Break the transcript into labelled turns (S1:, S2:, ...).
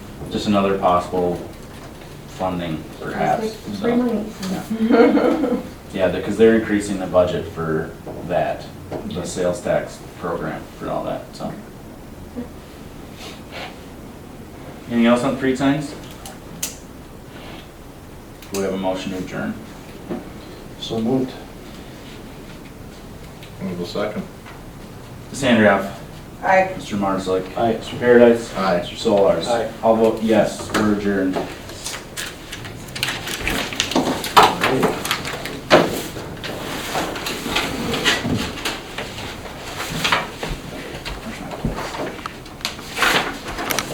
S1: just another possible funding perhaps,
S2: Free
S1: so.
S2: money.
S1: Yeah, because they're increasing the budget for that, the sales tax program for all that, so. Anything else on free signs? Do we have a motion to adjourn?
S3: So moved.
S4: Move the second.
S1: Ms. Andrioff,
S2: I
S1: Mr. Marslick.
S3: Aye.
S1: Mr. Paradise.
S4: Aye.
S1: Mr. Solars.
S3: Aye.
S1: I'll vote yes, we're adjourned.